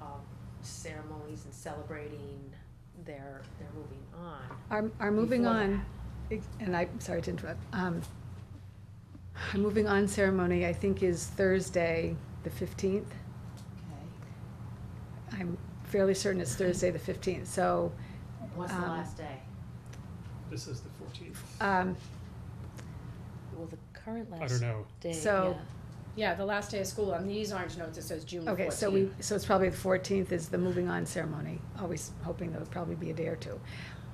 um, ceremonies and celebrating their, their moving on. Our, our moving Before on, and I'm sorry to interrupt, um, our moving on ceremony, I think, is Thursday, the fifteenth. I'm fairly certain it's Thursday, the fifteenth, so, What's the Um, last day? This is the fourteenth. um, Well, the current I don't know. day, So- Yeah, the last day of school, on these orange notes, it says June okay, so we, so it's probably the fourteenth is the moving on ceremony, always hoping there would probably be a day or two.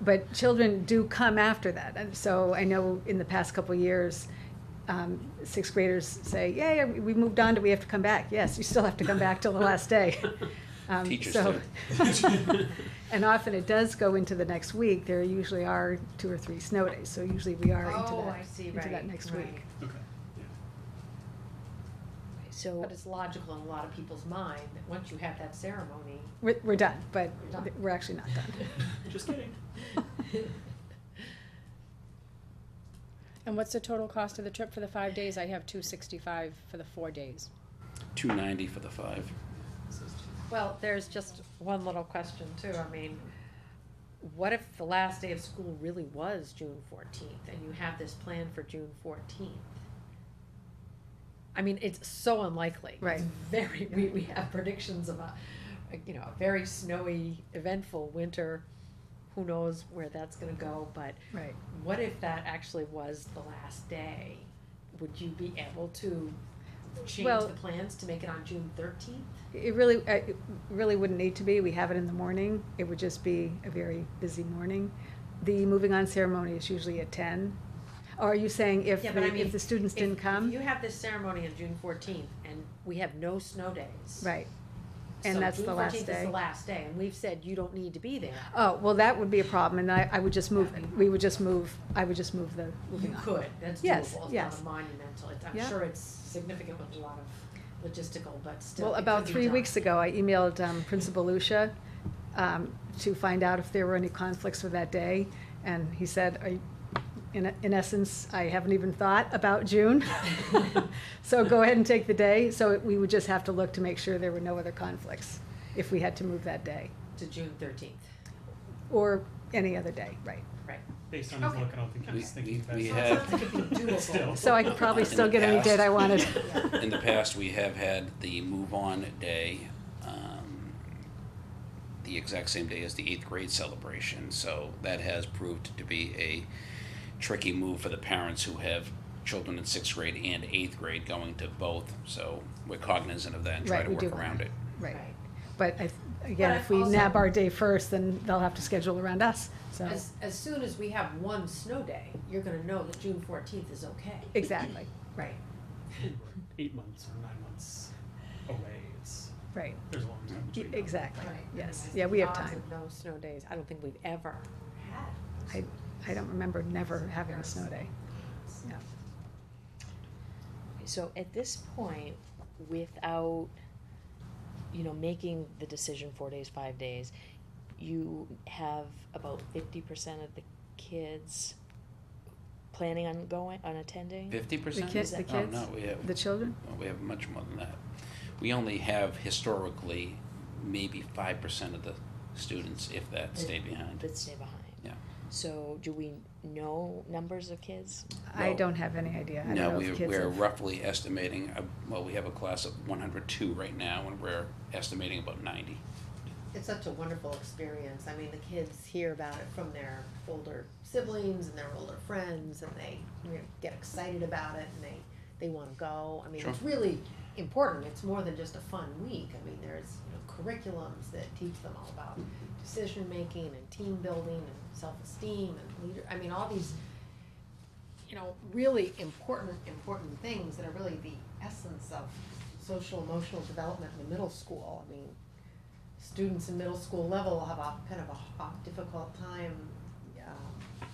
But children do come after that, and so I know in the past couple of years, um, sixth graders say, yay, we moved on, do we have to come back? Yes, you still have to come back till the last day. Um, Teachers so- And often it does go into the next week, there usually are two or three snow days, so usually we are into Oh, I that, see, into that right, next right. week. Okay. But it's logical in a lot of people's mind that once you have that ceremony, We're, we're done, but We're done. we're actually not done. Just kidding. And what's the total cost of the trip for the five days? I have two sixty-five for the four days. Two ninety for the five. Well, there's just one little question too, I mean, what if the last day of school really was June fourteenth, and you have this plan for June fourteenth? I mean, it's so unlikely. Right. It's Very, we, we have predictions of a, you know, a very snowy, eventful winter, who knows where that's gonna go, but Right, what if that actually was the last day? Would you be able to change Well- the plans to make it on June thirteenth? it really, uh, it really wouldn't need to be, we have it in the morning, it would just be a very busy morning. The moving on ceremony is usually at ten, or are you saying if, Yeah, but I the- mean, if the students If- didn't come? If you have this ceremony on June fourteenth, and we have no snow days. Right, and so that's the last June fourteenth is day. the last day, and we've said you don't need to be there. oh, well, that would be a problem, and I, I would just move, it. we would just move, I would just move the You moving on. could, that's Oh. Yes, doable, it's yes. not a monumental, it's, I'm Yeah. sure it's significant with a lot of logistical, but still. Well, it about could be three done. weeks ago, I emailed um, Principal Lucia um, to find out if there were any conflicts with that day, and he said, "Are you- in in essence, I haven't even thought about June, so go ahead and take the day. So it- we would just have to look to make sure there were no other conflicts if we had to move that day, To June thirteenth, or any other day, right? right. Based on his Okay. look, I don't think he was We- thinking about we- it. we have- Sounds like it'd be doable. Still. So I could probably In the still get any past. date I wanted. In the past, we have had the move on day, um, the exact same day as the eighth grade celebration. So that has proved to be a tricky move for the parents who have children in sixth grade and eighth grade going to both. So we're cognizant of that and try Right, to we do work want around that. it. Right, but I- again, But if we also- nab our day first, then they'll have to schedule around us, so, As, as soon as we have one snow day, you're gonna know that June fourteenth is okay. exactly, right. Eight months or nine months away. It's, Right, there's a long time E- between. now. exactly, Right. yes, I mean, yeah, we have odds time. of No snow days, I don't think we've ever had. I, I don't remember never having a snow day. Yeah. So at this point, without, you know, making the decision four days, five days, you have about fifty percent of the kids planning on going, on attending? Fifty percent? The ki- the Oh, kids? no, we have, The children? well, we have much more than that. We only have historically maybe five percent of the students, if that, stay behind. That stay behind? Yeah. So do we know numbers of kids? I Well, don't have any idea. I don't No, know we, if kids we're have- roughly estimating, uh, well, we have a class of one hundred two right now, and we're estimating about ninety. It's such a wonderful experience. I mean, the kids hear about it from their older siblings and their older friends, and they you know, get excited about it, and they they want to go. I mean, it's really important. It's more than just a fun week. I mean, there's you know, curriculums that teach them all about decision making and team building and self esteem and leader. I mean, all these you know really important important things that are really the essence of social emotional development in the middle school. I mean students in middle school level have a kind of a, a difficult time um,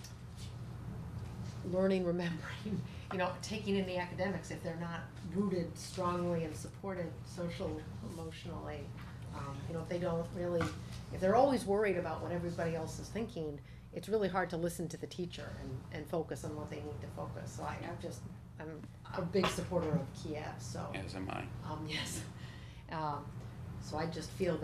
learning, remembering, you know, taking in the academics if they're not rooted strongly and supported social, emotionally. Um, you know, if they don't really, if they're always worried about what everybody else is thinking, it's really hard to listen to the teacher and, and focus on what they need to focus. So I, I'm just, I'm a big supporter of Kiev, so, As am I. um, yes. Um, so I just feel that.